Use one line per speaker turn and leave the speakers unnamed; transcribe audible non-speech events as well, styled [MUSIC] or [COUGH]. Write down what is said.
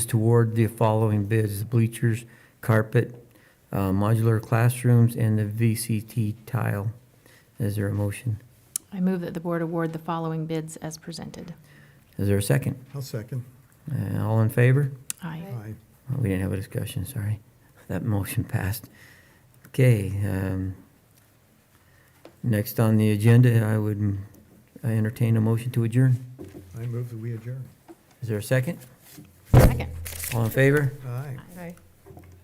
toward the following bids, bleachers, carpet, uh, modular classrooms, and the VCT tile. Is there a motion?
I move that the board award the following bids as presented.
Is there a second?
I'll second.
Uh, All in favor?
Aye.
Aye.
Oh, We didn't have a discussion, sorry. [LAUGHS] That motion passed. Okay. um, Next on the agenda, I would I entertain a motion to adjourn.
I move that we adjourn.
Is there a second?
Second.
All in favor?
Aye.
Aye.